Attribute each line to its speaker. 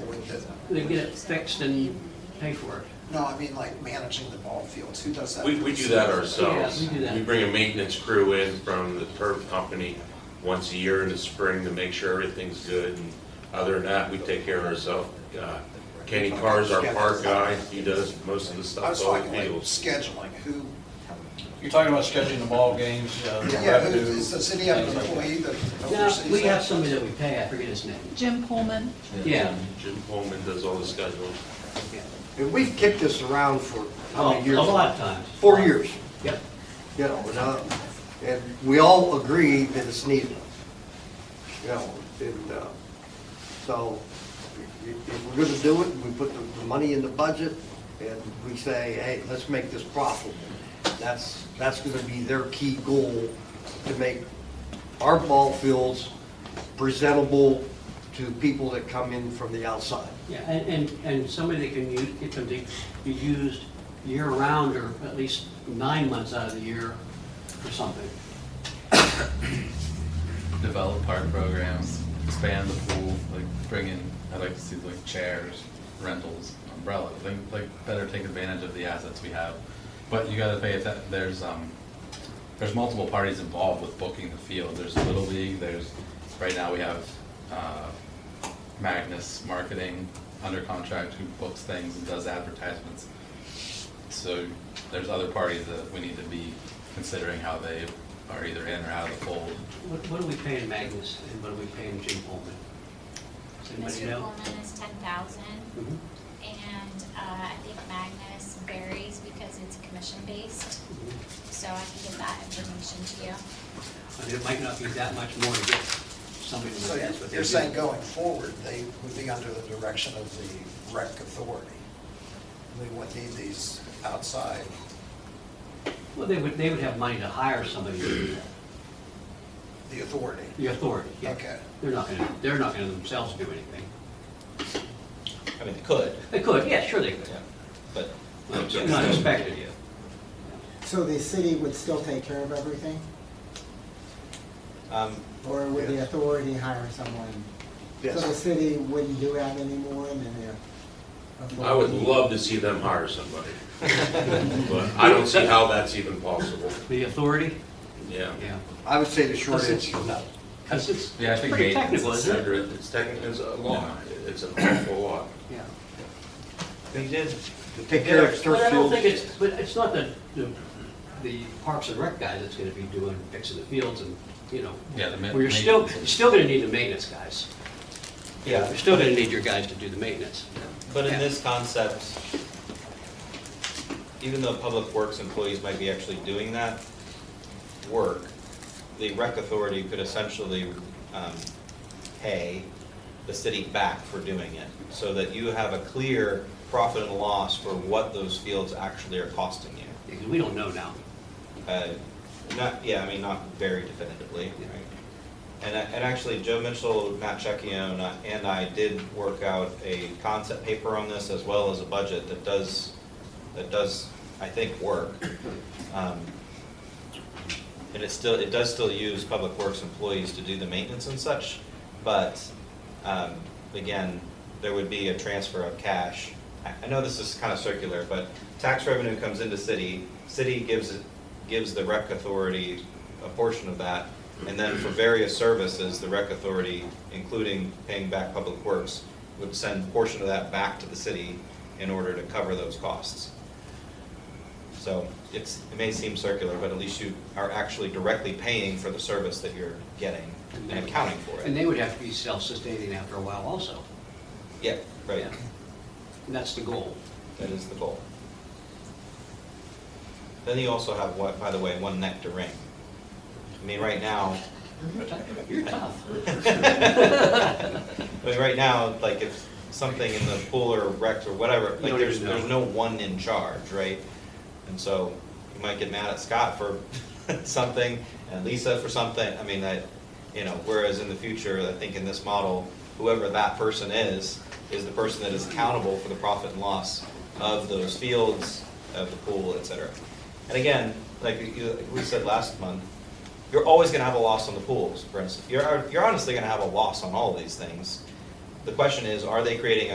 Speaker 1: that,
Speaker 2: They get it fixed and pay for it.
Speaker 1: no, I mean like managing the ball fields, who does that?
Speaker 3: We, we do that ourselves.
Speaker 2: Yeah, we do that.
Speaker 3: bring a maintenance crew in from the turf company once a year in the spring to make sure everything's good. And Other than that, we take care of ourselves. Uh, Kenny Carr's our park guy, he does most of
Speaker 1: I
Speaker 3: the
Speaker 1: was
Speaker 3: stuff on the
Speaker 1: talking like
Speaker 3: fields.
Speaker 1: scheduling, who,
Speaker 4: You're talking about scheduling the ball games, uh,
Speaker 1: yeah, who,
Speaker 4: revenue.
Speaker 1: is the city have an
Speaker 4: things like that.
Speaker 1: employee that
Speaker 2: No,
Speaker 1: oversees?
Speaker 2: we
Speaker 1: that?
Speaker 2: have somebody that we pay, I forget his name.
Speaker 5: Jim Coleman,
Speaker 2: Yeah.
Speaker 3: Jim Coleman does all the scheduling.
Speaker 6: And we've kicked this around for how
Speaker 2: Oh,
Speaker 6: many
Speaker 2: Um, A
Speaker 6: years?
Speaker 2: lot of times.
Speaker 6: Four years,
Speaker 2: Yep.
Speaker 6: you know, and, uh, and we all agree that it's needed. You know, and, uh, so i- if we're gonna do it, we put the, the money in the budget and we say, hey, let's make this profitable. That's, that's gonna be their key goal, to make our ball fields presentable to people that come in from the outside.
Speaker 2: Yeah, and, and, and somebody that can use, it can be, be used year-round or at least nine months out of the year or something.
Speaker 7: develop park programs, expand the pool, like bring in, I'd like to see like chairs, rentals, umbrellas, like, like better take advantage of the assets we have. But you gotta pay that, there's, um, there's multiple parties involved with booking the field. There's Little League, there's, right now we have, uh, Magnus Marketing under contract who books things and does advertisements. So there's other parties that we need to be considering how they are either in or out of the fold.
Speaker 2: What, what are we paying Magnus and what are we paying Jim Coleman? Does anybody
Speaker 8: Mr.
Speaker 2: know?
Speaker 8: Coleman is ten thousand,
Speaker 2: Mhm.
Speaker 8: and uh, I think Magnus varies because it's commission-based,
Speaker 2: Mhm.
Speaker 8: so I can give that information to you.
Speaker 2: I mean, it might not be that much more to get somebody to
Speaker 1: So
Speaker 2: do what they
Speaker 1: you're
Speaker 2: do.
Speaker 1: saying going forward, they would be under the direction of the rec authority? They wouldn't need these outside,
Speaker 2: Well, they would, they would have money to hire somebody to do that,
Speaker 1: the authority?
Speaker 2: the authority, yeah.
Speaker 1: Okay.
Speaker 2: They're not gonna, they're not gonna themselves do anything.
Speaker 9: I mean, they could,
Speaker 2: They could, yeah, sure they could.
Speaker 9: yeah, but. um,
Speaker 2: It's not expected yet.
Speaker 10: So the city would still take care of everything?
Speaker 9: Um,
Speaker 10: Or would the
Speaker 6: Yes.
Speaker 10: authority hire someone? So
Speaker 6: Yes.
Speaker 10: the city wouldn't do that anymore and then the.
Speaker 3: I would love to see them hire somebody. But I don't see how that's even possible,
Speaker 2: The authority,
Speaker 3: yeah.
Speaker 2: yeah.
Speaker 6: I would say the short
Speaker 2: Does it-
Speaker 6: answer is no.
Speaker 2: Because it's
Speaker 7: Yeah, I think
Speaker 2: pretty
Speaker 7: maintenance
Speaker 2: technical,
Speaker 7: is
Speaker 2: isn't it?
Speaker 3: Under- It's technically, it's a lot, it's an awful lot.
Speaker 2: Yeah.
Speaker 4: They did,
Speaker 6: To take care of turf
Speaker 2: But I don't
Speaker 6: fields.
Speaker 2: think it's, but it's not the, the, the Parks and Rec guy that's gonna be doing, fixing the fields and, you know.
Speaker 7: Yeah, the ma-
Speaker 2: Well, you're still,
Speaker 7: maintenance.
Speaker 2: you're still gonna need the maintenance guys.
Speaker 9: Yeah,
Speaker 2: You're still gonna need your guys to do the maintenance.
Speaker 9: but
Speaker 2: Yeah.
Speaker 9: in this concept, even though public works employees might be actually doing that work, the rec authority could essentially um, pay the city back for doing it, so that you have a clear profit and loss for what those fields actually are costing you.
Speaker 2: Because we don't know now.
Speaker 9: Uh, Not, yeah, I mean, not very definitively, right? And, I- and actually, Joe Mitchell, Matt Checkione, and I did work out a concept paper on this as well as a budget that does, that does, I think, work. Um, And it still, it does still use Public Works employees to do the maintenance and such, but, um, again, there would be a transfer of cash. I, I know this is kind of circular, but tax revenue comes into city, city gives, gives the rec authority a portion of that, and then for various services, the rec authority, including paying back public works, would send a portion of that back to the city in order to cover those costs. So it's, it may seem circular, but at least you are actually directly paying for the service that you're getting and accounting for
Speaker 2: And
Speaker 9: it.
Speaker 2: they would have to be self-sustaining after a while also.
Speaker 9: Yeah, right,
Speaker 2: Yeah. And that's the goal.
Speaker 9: that is the goal. Then you also have, what, by the way, one neck to ring. I mean, right now,
Speaker 2: You're tough.
Speaker 9: I mean, right now, like if something in the pool or wrecked or whatever,
Speaker 2: You
Speaker 9: like
Speaker 2: don't
Speaker 9: there's,
Speaker 2: even know.
Speaker 9: there's no one in charge, right? And so you might get mad at Scott for something and Lisa for something. I mean, that, you know, whereas in the future, I think in this model, whoever that person is, is the person that is accountable for the profit and loss of those fields, of the pool, et cetera. And again, like you- like we said last month, you're always going to have a loss on the pools, for instance. You're, you're honestly going to have a loss on all of these things. The question is, are they creating